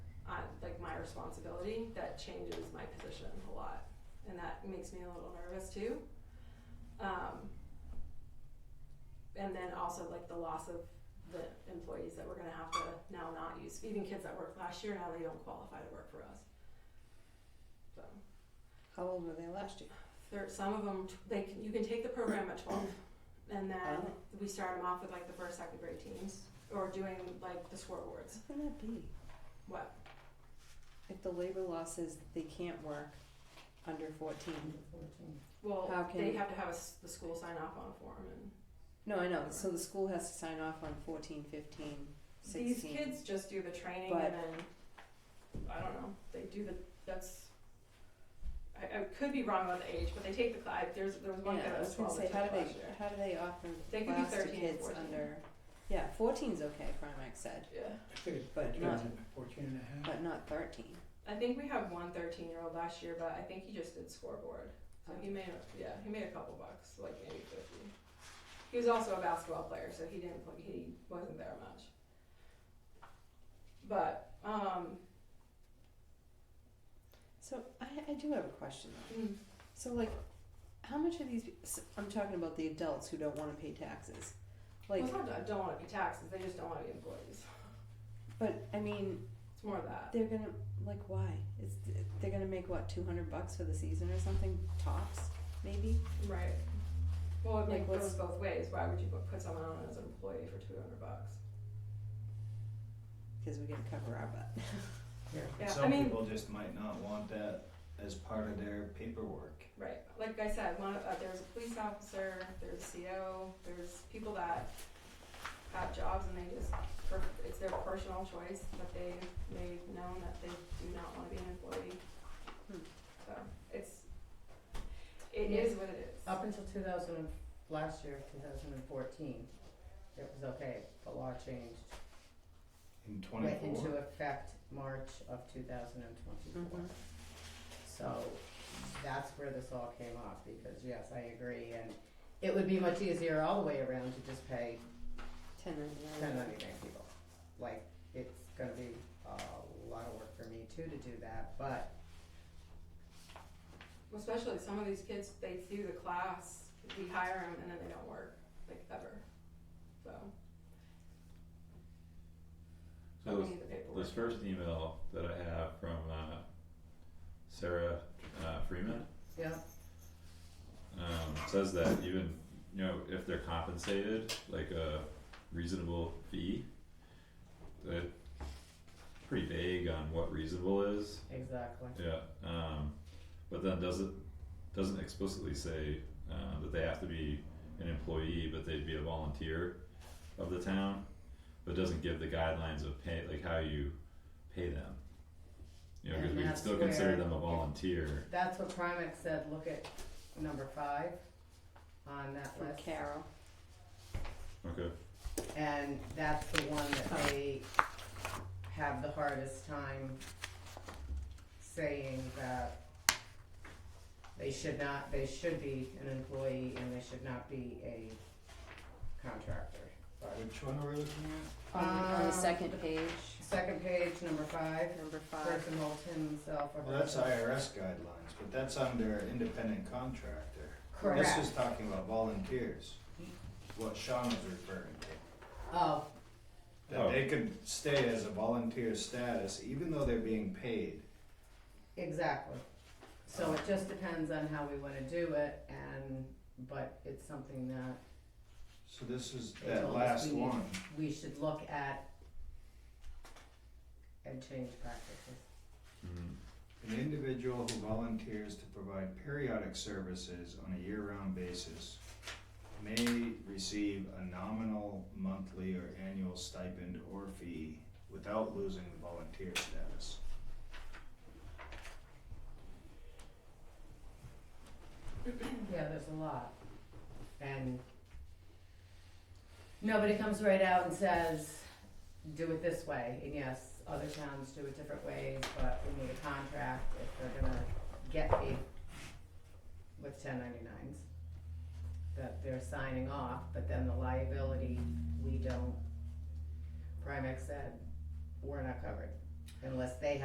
responsibility, that changes my position a lot. And that makes me a little nervous too. Um, and then also like the loss of the employees that we're gonna have to now not use, even kids that worked last year, now they don't qualify to work for us. So, How old were they last year? there, some of them, they can, you can take the program at twelve, and then Oh. we start them off with like the first, second grade teams, or doing like the scoreboards. How can that be? What? If the labor law says they can't work under fourteen. How Well, can- they have to have a s the school sign off on a form and. No, I know, so the school has to sign off on fourteen, fifteen, These sixteen. kids just do the training But- and then, I don't know, they do the, that's, I, I could be wrong about the age, but they take the class, there's, there was one kid Yeah, I that was was gonna twelve say, that how took do it they, last year. how do they offer They could be class to 13 and kids 14. under, yeah, fourteen's okay, Primax said, Yeah. I think it's But 14 not- fourteen and a half. but not thirteen. I think we have one 13 year old last year, but I think he just did scoreboard. So he made a, yeah, he made a couple bucks, like maybe fifty. He was also a basketball player, so he didn't play, he wasn't there much. But um, So I, I do have a question though. mm, So like, how much are these, s- I'm talking about the adults who don't wanna pay taxes. Like, well, it's not that I don't want to be taxes; they just don't want to be employees. but I mean, It's more of that. They're gonna like why? It's they're gonna make what two hundred bucks for the season or something tops maybe. Right. Well, it Like, like, what's- goes both ways. Why would you put- put someone on as an employee for two hundred bucks? 'Cause we gotta cover our butt. Yeah, I Some mean- people just might not want that as part of their paperwork. Right, like I said, one, of- uh, there's a police officer, there's CO, there's people that have jobs and they just, per- it's their personal choice that they, they've known that they do not wanna be an employee. Hmm. So, it's, it is what it is. Up until two thousand and, last year, two thousand and fourteen, it was okay, the law changed, In went into twenty-four, effect March of two thousand and twenty-four. Mhm. So, that's where this all came up, because yes, I agree, and it would be much easier all the way around to just pay Ten ten ninety-nine people. Like, it's gonna be a lot of work for me too to do that, but Especially some of these kids, they do the class, we hire them and then they don't work, like ever, so. So we this- need the paperwork. This first email that I have from uh, Sarah uh, Freeman yeah, um, says that even you know if they're compensated like a reasonable fee, that pretty vague on what reasonable is. exactly. Yeah. Um, but then doesn't doesn't explicitly say uh, that they have to be an employee, but they'd be a volunteer of the town, but doesn't give the guidelines of pay, like how you pay them. You know, because And we can that's still consider where- them a volunteer. That's what Primex said, look at number five on that from list. Carol. Okay. And that's the one that they have the hardest time saying that they should not, they should be an employee and they should not be a contractor. But which one are we looking at? On, the, on the Um, second page, Second page, number five, number five. person holds himself or Well, that's herself. IRS guidelines, but that's under independent contractor. Correct. This is talking about volunteers, what Sean was referring to. Oh, That they could stay as a volunteer status even though they're being paid. Exactly. So it just depends on how we wanna do it and, but it's something that So this is They that told us last we need- one. we should look at and change practices. Mm. An individual who volunteers to provide periodic services on a year-round basis may receive a nominal monthly or annual stipend or fee without losing the volunteer status. Yeah, there's a lot. And nobody comes right out and says, do it this way. And yes, other towns do it different ways, but we need a contract if they're gonna get the, with ten ninety-nines. That they're signing off, but then the liability, we don't, Primex said, we're not covered unless they